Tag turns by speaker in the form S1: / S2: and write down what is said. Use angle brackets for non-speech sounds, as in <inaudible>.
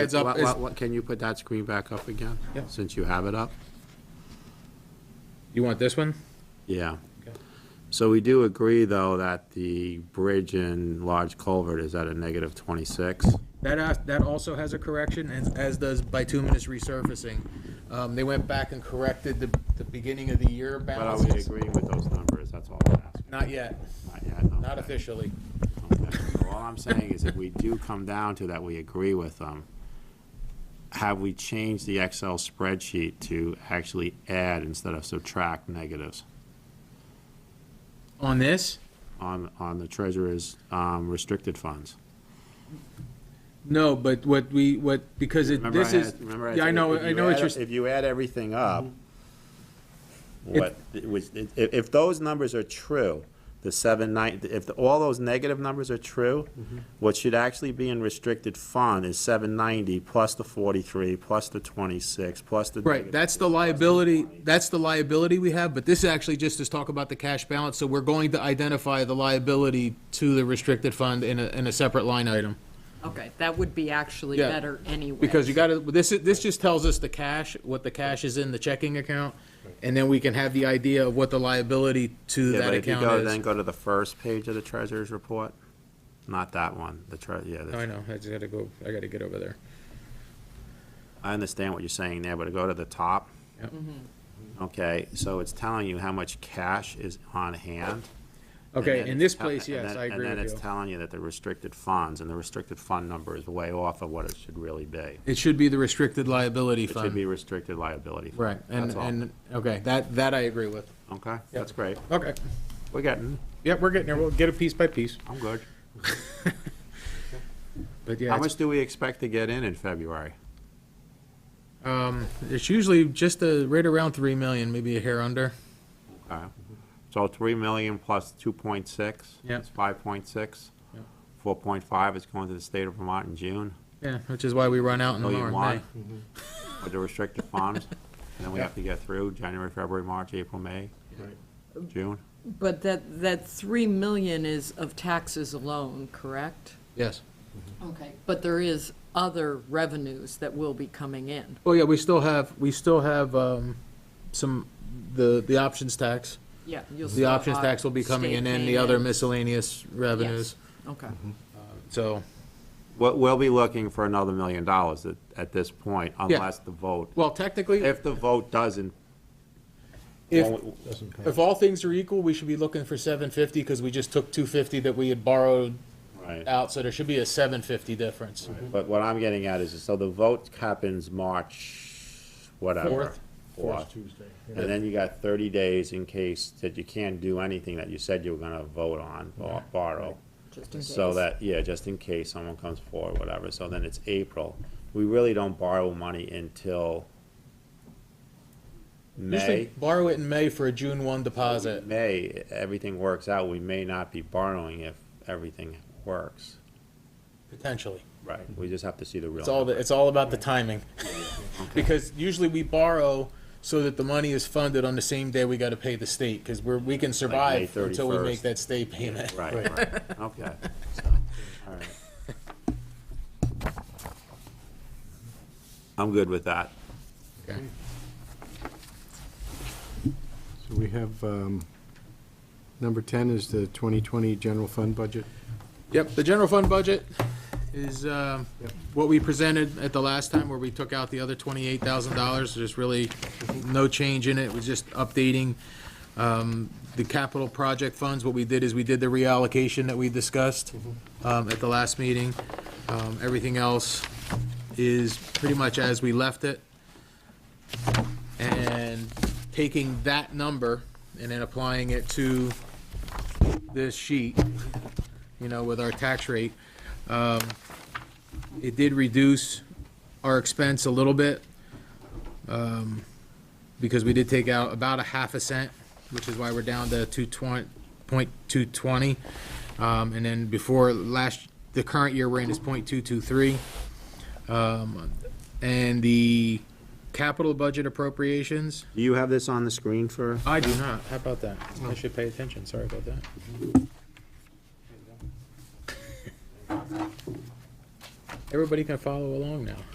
S1: Heads up
S2: What-
S1: is-
S2: what- what- Can you put that screen back up again?
S1: Yeah.
S2: Since you have it up?
S1: You want this one?
S2: Yeah.
S1: Okay.
S2: So we do agree, though, that the bridge and large culvert is at a negative 26.
S1: That, as- that also has a correction, as, as does bituminous resurfacing. Um, they went back and corrected the, the beginning of the year
S2: But are we
S1: balances.
S2: agreeing with those numbers? That's all I'm asking.
S1: Not yet,
S2: Not yet, no.
S1: not officially.
S2: Okay. So All I'm saying is if we do come down to that, we agree with them, have we changed the Excel spreadsheet to actually add instead of subtract negatives
S1: On this?
S2: on, on the treasurer's um, restricted funds?
S1: No, but what we, what, because it,
S2: Remember
S1: this
S2: I
S1: is,
S2: had- remember
S1: yeah, I
S2: said
S1: know,
S2: if
S1: I
S2: you
S1: know what
S2: add-
S1: you're, s-
S2: If you add everything up,
S1: Mm-hmm.
S2: what, it was, if, if those numbers are true, the seven nine, if the- all those negative numbers are true,
S1: Mm-hmm.
S2: what should actually be in restricted fund is seven ninety plus the forty-three, plus the twenty-six, plus the.
S1: right, that's the liability, that's the liability we have, but this actually just is talk about the cash balance, so we're going to identify the liability to the restricted fund in a, in a separate line item.
S3: Okay, that would be actually
S1: Yeah,
S3: better anyway.
S1: Because you gotta, this, is- this just tells us the cash, what the cash is in the checking account, and then we can have the idea of what the liability to
S2: Yeah,
S1: that
S2: but if you
S1: account
S2: go, then
S1: is.
S2: go to the first page of the treasurer's report, not that one, the tre, yeah. the-
S1: I know, I just gotta go, I gotta get over there.
S2: I understand what you're saying there, but to go to the top. Mm-hmm.
S1: Yep.
S2: Okay, so it's telling you how much cash is on hand. and then
S1: Okay, in
S2: it's
S1: this
S2: tell-
S1: place,
S2: and
S1: yes,
S2: then-
S1: I agree
S2: And then
S1: with
S2: it's
S1: you.
S2: telling you that the restricted funds, and the restricted fund number is way off of what it should really be.
S1: It should be the restricted liability
S2: It should
S1: fund.
S2: be restricted liability. fund.
S1: Right, and,
S2: That's all.
S1: and, okay, that, that I agree with.
S2: Okay, that's great.
S1: Okay,
S2: We're getting,
S1: yeah, we're getting there, we'll get it piece by piece,
S2: I'm good.
S1: but yeah,
S2: How
S1: it's-
S2: much do we expect to get in in February?
S1: um, it's usually just a, right around three million, maybe a hair under.
S2: Okay. So three million plus two point six?
S1: Yep.
S2: It's five point six.
S1: Yep.
S2: Four point five is going to the state of Vermont in June.
S1: Yeah, which is why we run out in the
S2: million
S1: May.
S2: one Oh, with the restricted funds, and then we have to get through January, February, March, April, May, June.
S3: But that, that 3 million is of taxes alone, correct?
S1: Yes.
S3: Okay. But there is other revenues that will be coming in.
S1: Well, Oh, yeah, we still have, we still have, um, some, the, the options tax.
S3: Yeah. you'll
S1: The
S3: still
S1: options
S3: have
S1: tax will be coming in,
S3: state
S1: and the
S3: paying
S1: other
S3: in.
S1: miscellaneous revenues, Mm-hmm.
S3: Okay,
S1: so,
S2: We'll, we'll be looking for another million dollars at, at this point, unless the vote,
S1: well, technically,
S2: if the vote doesn't,
S1: if, if all things are equal, we should be looking for seven fifty, because we just took two fifty that we had borrowed
S2: right.
S1: out, so there should be a seven fifty difference.
S2: But what I'm getting at is, so the vote happens March, whatever.
S1: Fourth.
S2: Fourth.
S4: Tuesday.
S2: And then you got thirty days in case that you can't do anything that you said you were gonna vote on, or borrow.
S3: just in case.
S2: So that, yeah, just in case someone comes forward, whatever, so then it's April. We really don't borrow money until
S1: Usually
S2: May.
S1: borrow it in May for a June one deposit.
S2: May, everything works out, we may not be borrowing if everything works.
S1: Potentially.
S2: Right. We just have to see the real.
S1: It's all, the-
S2: number.
S1: it's all about the timing. <laughs> Because usually we borrow so that the money is funded on the same day we gotta pay the state, because we're, we can survive until we
S2: 31st.
S1: make that state payment. <laughs>
S2: Right, right, okay. So, all right. I'm good with that.
S1: Okay.
S4: So we have, um, number 10 is the 2020 general fund budget.
S1: Yep, the general fund budget is um,
S4: Yep.
S1: what we presented at the last time where we took out the other twenty-eight thousand dollars. There's really no change in it. We're just updating um, the capital project funds. What we did is we did the reallocation that we discussed um, at the last meeting. Um, Everything else is pretty much as we left it. And taking that number and then applying it to this sheet, you know, with our tax rate. Um, It did reduce our expense a little bit, um, because we did take out about a half a cent, which is why we're down to two twenty, point two twenty. Um, and then before last, the current year we're in is point two two three. Um, and the capital budget appropriations,
S2: Do you have this on the screen for?
S1: I do not, how about that? I should pay attention, sorry about that. Everybody can follow along now.